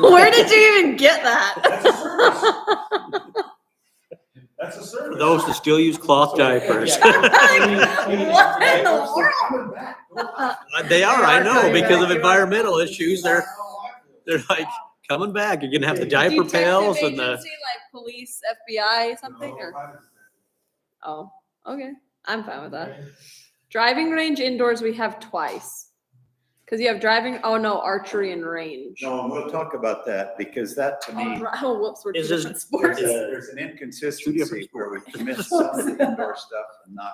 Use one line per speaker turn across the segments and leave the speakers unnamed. Where did you even get that?
That's a
For
service.
those that still use cloth diapers.
What in the world?
world?
They are, I know, because of environmental issues, they're, they're like coming back. You're gonna have the diaper
Detective
pails and
agency,
the,
Like police, FBI, something or, oh, okay, I'm fine with that. Driving range indoors, we have twice. Cause you have driving, oh no, archery and range.
No, and we'll talk about that because that to
Oh,
me,
dri- oh, whoops, we're two
Is this-
different
there's
sports.
a-
Yeah.
there's an inconsistency where we commit some of the indoor stuff and not.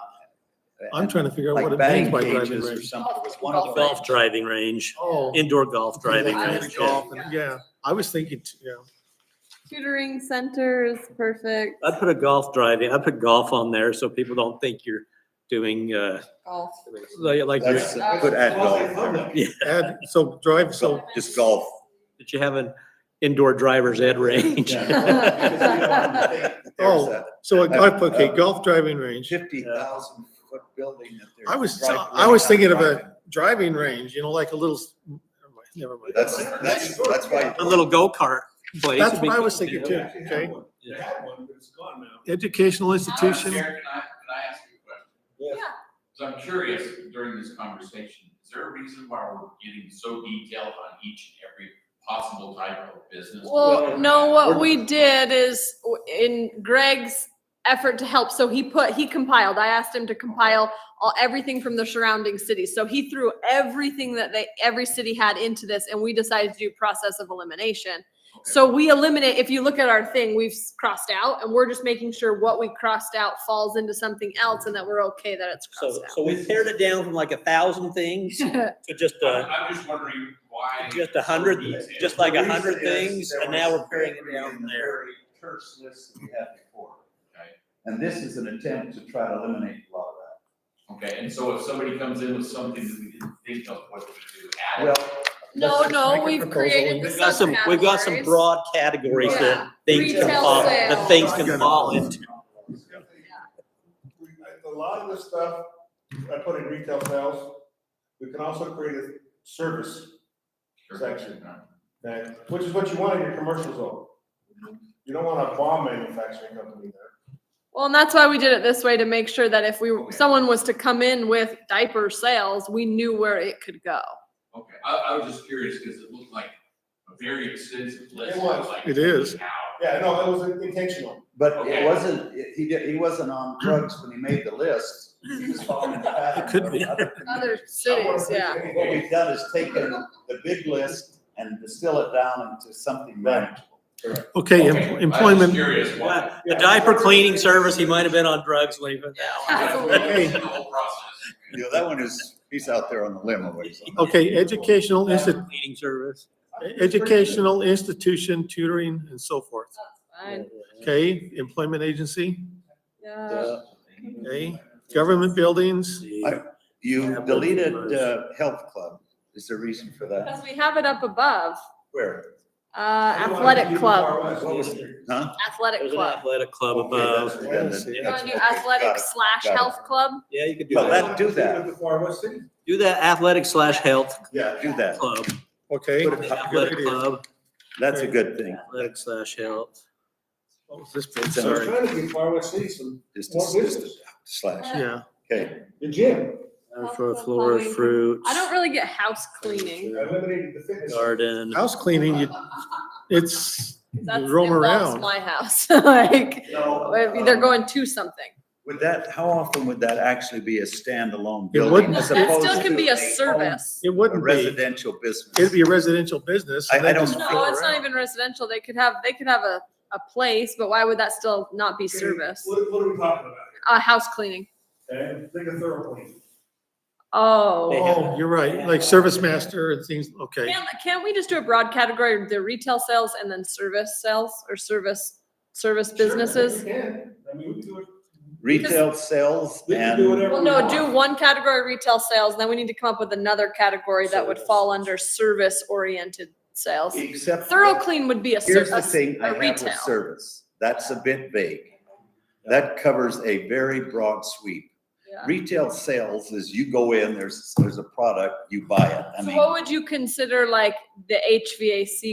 I'm trying to figure out
Like
what it
batting
means by driving
cages or
range.
something was one of the.
golf driving range,
Oh.
indoor golf driving
Yeah.
range.
Golf and- Yeah, I was thinking, t- yeah.
Tutoring center is perfect.
I put a golf driving, I put golf on there so people don't think you're doing, uh,
Golf.
like, like you're-
That's,
Uh,
put at golf,
Add, so drive, so
so just golf.
that you have an indoor driver's ed range.
Oh. So I I put, okay,
Uh,
golf driving range,
Fifty thousand foot building that they're.
I was-
right-
I was thinking of a- driving range, you know, like a little, s- never mind, never mind.
That's, that's, that's why.
A little go-kart place.
That's
would be
what I was
good to
thinking
do.
too. okay.
They had one, but it's gone now.
Educational
Madam
institution,
Chair, Can I, can I ask you a question?
Yeah.
So I'm curious during this conversation, is there a reason why we're getting so detailed on each and every possible type of business?
Well, no, what
We're-
we did is w- in Greg's effort to help, so he put, he compiled, I asked him to compile all, everything from the surrounding cities. So he threw everything that they, every city had into this and we decided to do process of elimination. So we eliminate, if you look at our thing, we've s- crossed out and we're just making sure what we crossed out falls into something else and that we're okay that it's
So,
crossed
so we pared it down from like a thousand things
out.
to just
I'm
a,
I'm just wondering why.
just a hundred,
it's so detailed.
just like a
The
hundred
reason is
things,
there
and now
was
we're paring it
bravery
down
in
from
the
there.
very Terse list that we had before.
Okay.
And this is an attempt to try to eliminate a lot of that.
Okay, and so if somebody comes in with something that we didn't think of, what do we do? Add it?
Well,
No,
Let's
no,
make a
we've
proposal.
created the
We've got some, we've got some
subcategories.
broad categories
Yeah.
that things can
Retail
fall, that
sales.
things can fall into.
We- A lot of the stuff I put in retail sales, we can also create a service
Sure.
section. that, which is what you want in your commercial zone. You don't want a bomb manufacturing company there.
Well, and that's why we did it this way to make sure that if we, someone was to come in with diaper sales, we knew where it could go.
Okay, I, I was just curious because it looked like a very extensive list.
It was.
like,
It is.
How?
Yeah, no, it was intentional.
but it
Okay.
wasn't, it- he did, he wasn't on drugs when he made the list. He was following the pattern.
It could be.
of other-
Other
I wanna
cities,
make
yeah.
anything.
What we've done is taken the big list and distill it down into something manageable.
okay,
Okay, I
em-
was
employment,
Curious why.
The diaper cleaning service, he might have been on drugs when he put that
That's
one.
what we did the whole process.
You know, that one is, he's out there on the limb always.
okay, educational institution.
Diaper Cleaning service.
educational institution, tutoring, and so forth.
Fine,
Okay, employment agency,
Uh,
yeah.
okay, government buildings,
See.
You deleted, uh, health club. Is there a reason for that?
Because we have it up above,
Where?
uh,
I don't wanna
athletic
be
club,
far west.
What was it? Huh?
athletic
There's an
club.
athletic club uh,
Okay, that's
above.
redundant.
You
You wanna do
Okay,
athletic
got it.
slash
got it.
health club?
Yeah, you could do
Well,
that.
that- do that.
The Far West City.
Do that athletic slash health
Uh, Yeah, do that.
club,
okay?
Put it up.
Good
athletic
idea.
club,
That's a good thing.
athletic slash health.
What was this
It's
I was
Sorry.
page?
trying to be Far West City, so
Just,
What
a- just a
business?
slash.
Yeah,
Okay,
the gym,
For flora, fruits,
I don't really get house cleaning.
I eliminated the fitness.
garden.
house cleaning, you, it's,
That's
you roam
involves
around.
my house, like,
No,
they're
um,
going to something.
would that, how often would that actually be a standalone
It
building
wouldn't.
as
It
opposed
still can be
to
a
home-
service.
It
A
wouldn't be,
residential
it'd
business?
be a residential business. and
I- I
they
don't-
just
No,
float
it's not
around.
even residential. They could have, they could have a, a place, but why would that still not be service?
What, what are we talking about
Uh, house cleaning.
here? Okay, think of thermal clean.
Oh.
Oh, you're right, like service master and things, okay.
Can, can't we just do a broad category, the retail sales and then service sales or service, service businesses?
Sure, we can. I mean, we can do it.
Retail sales
We can do
and
whatever
Well,
we
no,
want.
do one category retail sales, then we need to come up with another category that would fall under service oriented sales.
except.
Thorough clean would be a
Here's the
service,
thing I
a
have with
retail.
service. That's a bit vague. That covers a very broad sweep.
Yeah.
Retail sales is you go in, there's, there's a product, you buy it. I
So
mean.
what would you consider like the HVAC